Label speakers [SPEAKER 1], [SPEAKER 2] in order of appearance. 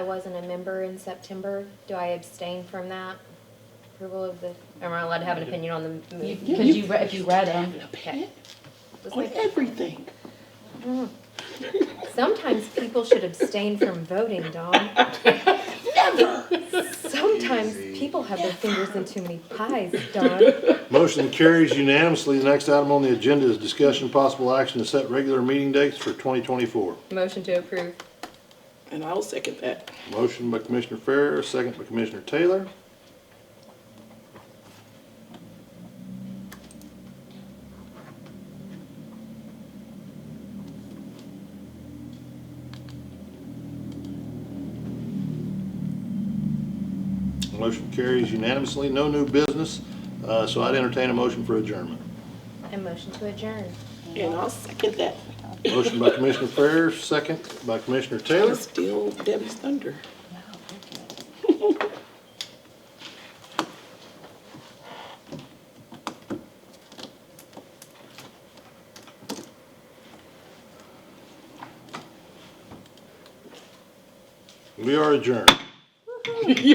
[SPEAKER 1] I wasn't a member in September. Do I abstain from that? Approval of the, am I allowed to have an opinion on the,
[SPEAKER 2] You-
[SPEAKER 1] move?
[SPEAKER 2] Because you, re- if you read them,
[SPEAKER 1] okay. Let's
[SPEAKER 3] on
[SPEAKER 1] make-
[SPEAKER 3] everything.
[SPEAKER 1] Sometimes people should abstain from voting, Dawn.
[SPEAKER 3] Never.
[SPEAKER 1] Sometimes people have their fingers in too many pies, Dawn.
[SPEAKER 4] Motion carries unanimously. The next item on the agenda is discussion and possible action to set regular meeting dates for 2024.
[SPEAKER 1] Motion to approve.
[SPEAKER 3] And I'll second that.
[SPEAKER 4] Motion by Commissioner Farrar, second by Commissioner Taylor. Motion carries unanimously. No new business, uh, so I'd entertain a motion for adjournment.
[SPEAKER 1] And motion to adjourn.
[SPEAKER 3] And I'll second that.
[SPEAKER 4] Motion by Commissioner Farrar, second by Commissioner Taylor.
[SPEAKER 3] Still Debbie's thunder.
[SPEAKER 4] We are adjourned.